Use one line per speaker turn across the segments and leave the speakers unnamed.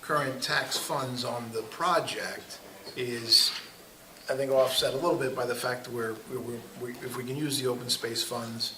current tax funds on the project is, I think, offset a little bit by the fact that we're, we're- we- if we can use the open space funds,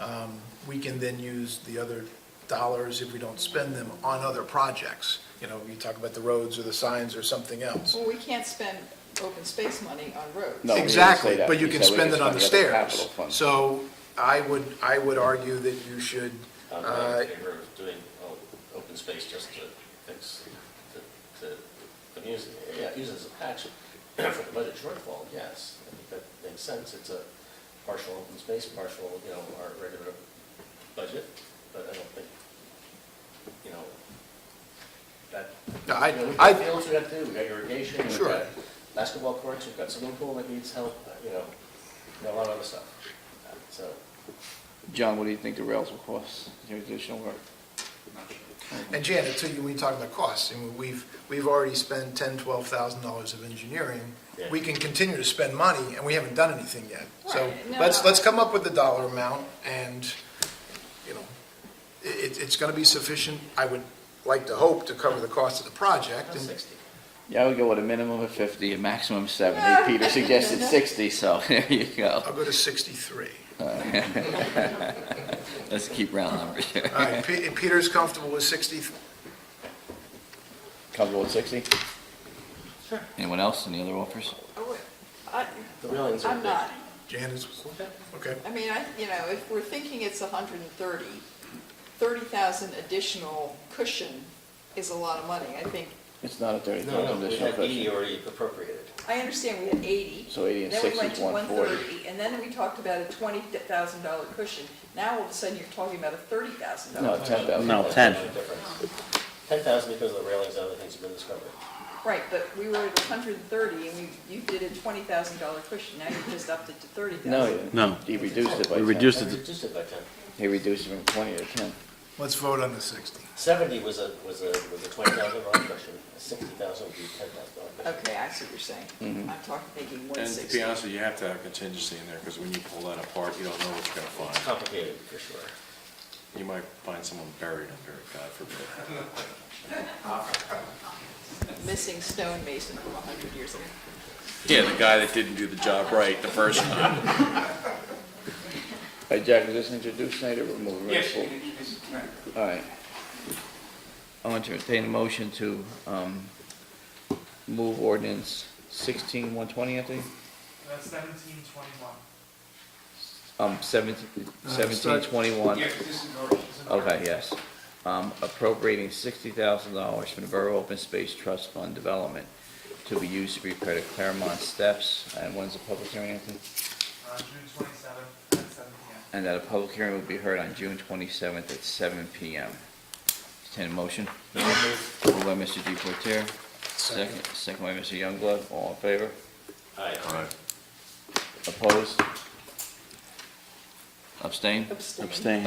um, we can then use the other dollars, if we don't spend them, on other projects. You know, you talk about the roads or the signs or something else.
Well, we can't spend open space money on roads.
No. we didn't say
Exactly,
that.
but you
We
can
said we
spend
could
it on the
spend the other capital
stairs.
fund.
So I would, I would argue that you should,
I'm
uh,
in favor of doing o- open space just to fix the, the, the music, yeah, use it as a patch for the budget shortfall, yes. I think that makes sense, it's a partial open space, partial, you know, our regular budget, but I don't think, you know, that.
No, I-
you know, We've
I-
got fields we have to do, we've got irrigation, we've
Sure.
got basketball courts, we've got swimming pool that needs help, you know, and a lot of other stuff, so.
John, what do you think the rails will cost, your additional work?
And Janet, too, when we talk about costs, and we've, we've already spent ten, twelve thousand dollars of engineering.
Yeah.
We can continue to spend money, and we haven't done anything yet. So
Right, no,
let's,
no.
let's come up with the dollar amount, and, you know, i- it, it's gonna be sufficient, I would like to hope, to cover the cost of the project. and-
Sixty.
Yeah, I would go with a minimum of fifty, a maximum of seventy. Peter suggested sixty, so there you go.
I'll go to sixty-three.
Let's keep round numbers here.
All right, Pe- Peter's comfortable with sixty,
Comfortable with sixty? Anyone else, any other offers?
Oh, I,
The railings are
I'm
big.
not,
Janet's, okay.
I mean, I, you know, if we're thinking it's 130, 30,000 additional cushion is a lot of money, I think.
It's not a thirty
No, no,
thousand
we
additional
had E eighty
question.
already appropriated.
I understand we had 80.
So 80 and 60 is
Then we went to
140.
130, and then we talked about a $20,000 cushion. Now, all of a sudden, you're talking about a $30,000.
No, Oh, ten thousand.
No, 10.
Ten thousand because of the railings and other things have been discovered.
Right, but we were at 130, and we, you did a $20,000 cushion, now you just upped it to 30,000.
No, you didn't.
No.
He reduced it by
We
ten.
reduced- Just
I
as a-
reduced it by ten.
He reduced it from twenty to ten.
Let's vote on the sixty.
Seventy was a, was a, was a twenty thousand dollar question, sixty thousand would be ten thousand dollar question.
Okay, I see what you're saying.
Mm-hmm.
I'm talking, thinking
And to be
160.
honest with you, you have to have a contingency in there, because when you pull that apart, you don't know what you're gonna find.
Complicated, for sure.
You might find someone buried under it, God forbid.
Missing stonemason from 100 years ago.
Yeah, the guy that didn't do the job right the first time.
All right, Jack, is this introduced tonight or removed?
Yes, you can introduce it tonight.
All right. I want to entertain a motion to um, move ordinance sixteen one twenty, I think?
That's seventeen twenty-one.
Um, seventeen, seventeen twenty-one.
Yes, this is ours. This is ours.
Okay, yes. Um, appropriating sixty thousand dollars from the Borough Open Space Trust Fund Development to be used to repair the Claremont steps. And when's the public hearing, Anthony?
Uh, June twenty-seventh at seven P M.
And that a public hearing will be heard on June twenty-seventh at seven PM. Entertain a motion? Moved by Mr. Deportaire, second, second by Mr. Youngblood, all in favor?
Aye.
Opposed? Abstain?
Abstain.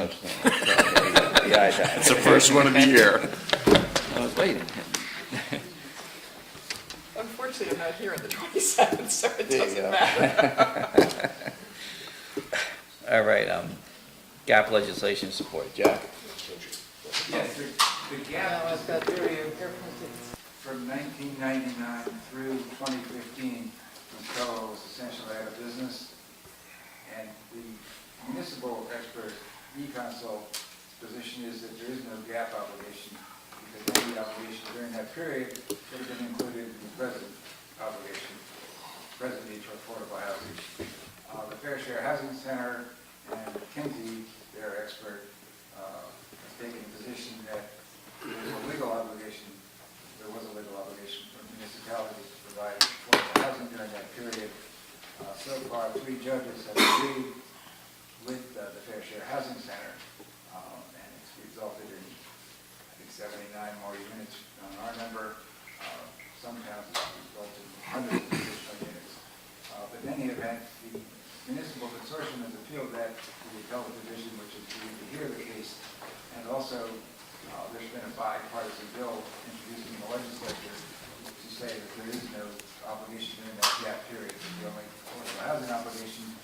Abstain. It's the first one of the year. I was waiting.
Unfortunately, I'm not here on the 27th, so it
There you
doesn't
go.
matter.
All right, um, gap legislation support, Jack?
Yes, the, the
Oh,
gap is the period from nineteen ninety-nine through twenty fifteen, when Trello was essentially out of business. And the municipal expert, e-consult, position is that there is no gap obligation, because any obligation during that period would have been included in the present obligation, present need for affordable housing. Uh, the Fair Share Housing Center and Kinsey, their expert, uh, has taken the position that there's a legal obligation, there was a legal obligation for municipalities to provide affordable housing during that period. Uh, So far, three judges have agreed with uh, the Fair Share Housing Center, um, and it's resulted in, I think, 79 more units on our number. Uh, Some towns have resulted in hundreds of additional units. Uh, But in any event, the municipal consortium has appealed that to the appellate division, which is due to hear the case. And also, uh, there's been a bipartisan bill introduced in the legislature to say that there is no obligation during that gap period. The only affordable housing obligation